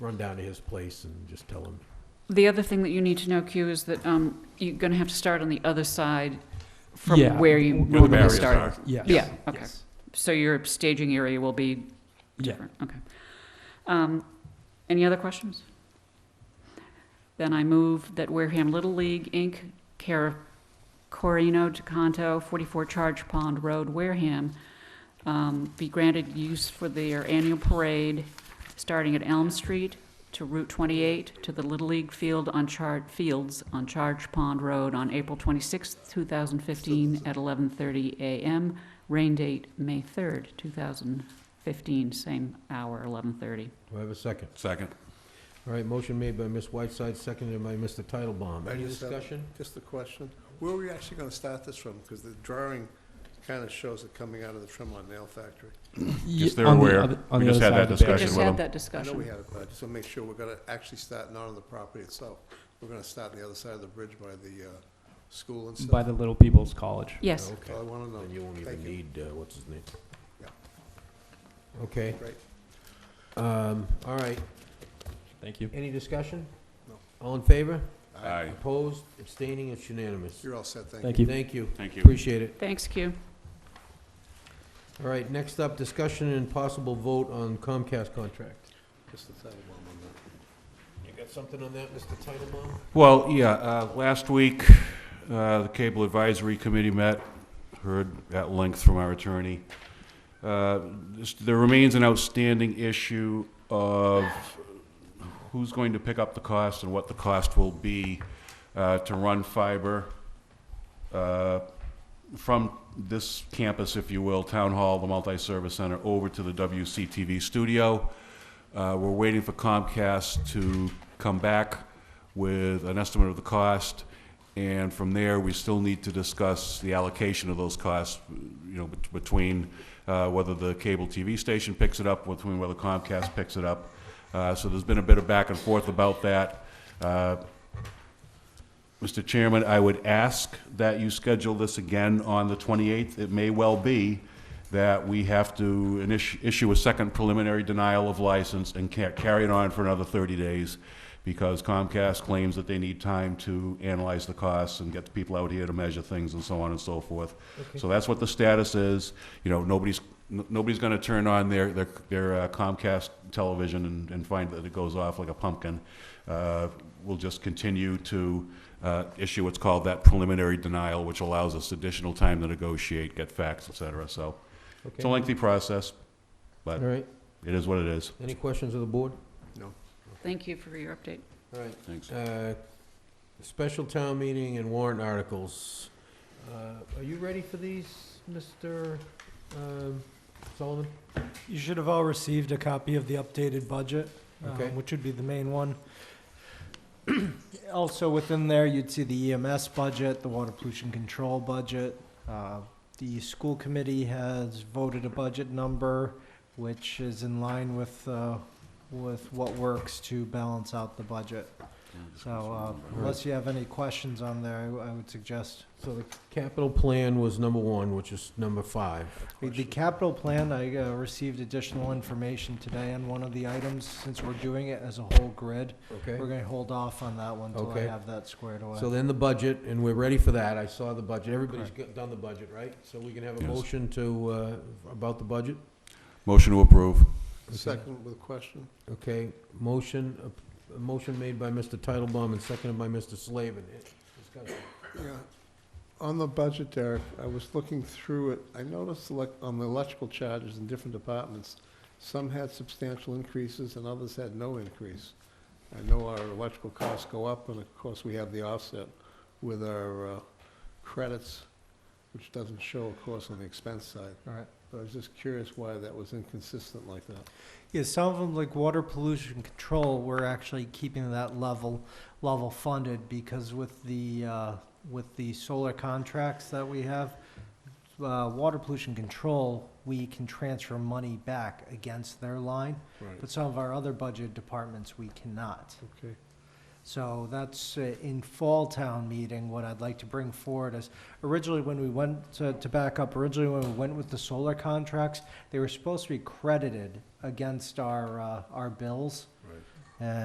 run down to his place and just tell him. The other thing that you need to know, Q, is that um, you're going to have to start on the other side Yeah, from where you where the normally barriers start. Yes. Yeah, okay. Yes. So your staging area will be Yeah. different, okay. Um, Any other questions? Then I move that Wareham Little League, Inc., care of Corino DeCanto, 44 Charge Pond Road, Wareham, um, be granted use for their annual parade, starting at Elm Street to Route 28 to the Little League Field on Charge, Fields on Charge Pond Road on April 26th, 2015, at 11:30 a.m., rain date May 3rd, 2015, same hour, 11:30. Do I have a second? Second. All right, motion made by Ms. Whiteside, seconded by Mr. Titlebaum. I Any just have- discussion? Just a question. Where are we actually going to start this from? Because the drawing kind of shows it coming out of the Tremont Nail Factory. Yes, they're On the aware. other- on We the other just had side of that the We barrier. discussion. just with had them. that I know we discussion. had it, but I just want to make sure we're going to actually start not on the property itself. We're going to start on the other side of the bridge by the uh, school and By stuff. the Little People's College. Yes, That's all I Okay, want to know. then you won't even Oh, Thank you. need, uh, what's his name? Yeah. Okay, Great. um, all right, Thank you. any discussion? No. All in favor? Aye. Opposed, abstaining, it's unanimous. You're all set, thank you. Thank you. Thank you, Thank you. appreciate it. thanks, Q. All right, next up, discussion and possible vote on Comcast contract. Just the title bomb on that. You got something on that, Mr. Titlebaum? Well, yeah, uh, last week, uh, the Cable Advisory Committee met, heard at length from our attorney. Uh, this- There remains an outstanding issue of who's going to pick up the cost and what the cost will be uh, to run fiber uh, from this campus, if you will, Town Hall, the Multi-Service Center, over to the WCTV studio. Uh, We're waiting for Comcast to come back with an estimate of the cost, and from there, we still need to discuss the allocation of those costs, you know, bet- between uh, whether the cable TV station picks it up, between whether Comcast picks it up. Uh, So there's been a bit of back and forth about that. Uh, Mr. Chairman, I would ask that you schedule this again on the 28th. It may well be that we have to initi- issue a second preliminary denial of license and ca- carry it on for another 30 days because Comcast claims that they need time to analyze the costs and get the people out here to measure things and so on and so forth. So that's what the status is. You know, nobody's, n- nobody's going to turn on their, their their uh, Comcast television and, and find that it goes off like a pumpkin. Uh, We'll just continue to uh, issue what's called that preliminary denial, which allows us additional time to negotiate, get facts, et cetera. So it's a Okay, lengthy process, all but right, it is what it is. any questions of the board? Thank you for your update. All right, Thanks. Uh, Special town meeting and warrant articles. Uh, Are you ready for these, Mr. um, Sullivan? You should have all received a copy of the updated budget, um, Okay. which would be the main one. Also within there, you'd see the EMS budget, the water pollution control budget. Uh, The school committee has voted a budget number, which is in line with, uh, with what works to balance out the budget. So uh, unless you have any questions on there, I I would suggest So the capital plan was number one, which is number five. The- The capital plan, I uh, received additional information today on one of the items, since we're doing it as a whole grid. Okay? We're gonna hold off on that one till I Okay. have that squared So away. then the budget, and we're ready for that. I saw the budget. Everybody's Correct. got- done the budget, right? So we can have a Yes. motion to, uh, about the budget? Motion to approve. Second with a question? Okay, motion, a- a motion made by Mr. Titlebaum and seconded by Mr. Slavin. Eh, discussion. Yeah. On the budget, Derek, I was looking through it. I noticed elec- on the electrical charges in different departments, some had substantial increases and others had no increase. I know our electrical costs go up, and of course, we have the offset with our uh, credits, which doesn't show, of course, on the expense side. All right. But I was just curious why that was inconsistent like that. Yeah, some of them, like water pollution control, we're actually keeping that level, level funded, because with the, uh, with the solar contracts that we have, uh, water pollution control, we can transfer money back against their line, Right. but some of our other budget departments, we cannot. Okay. So that's uh, in fall town meeting, what I'd like to bring forward is, originally when we went, to to back up, originally when we went with the solar contracts, they were supposed to be credited against our, uh, our bills.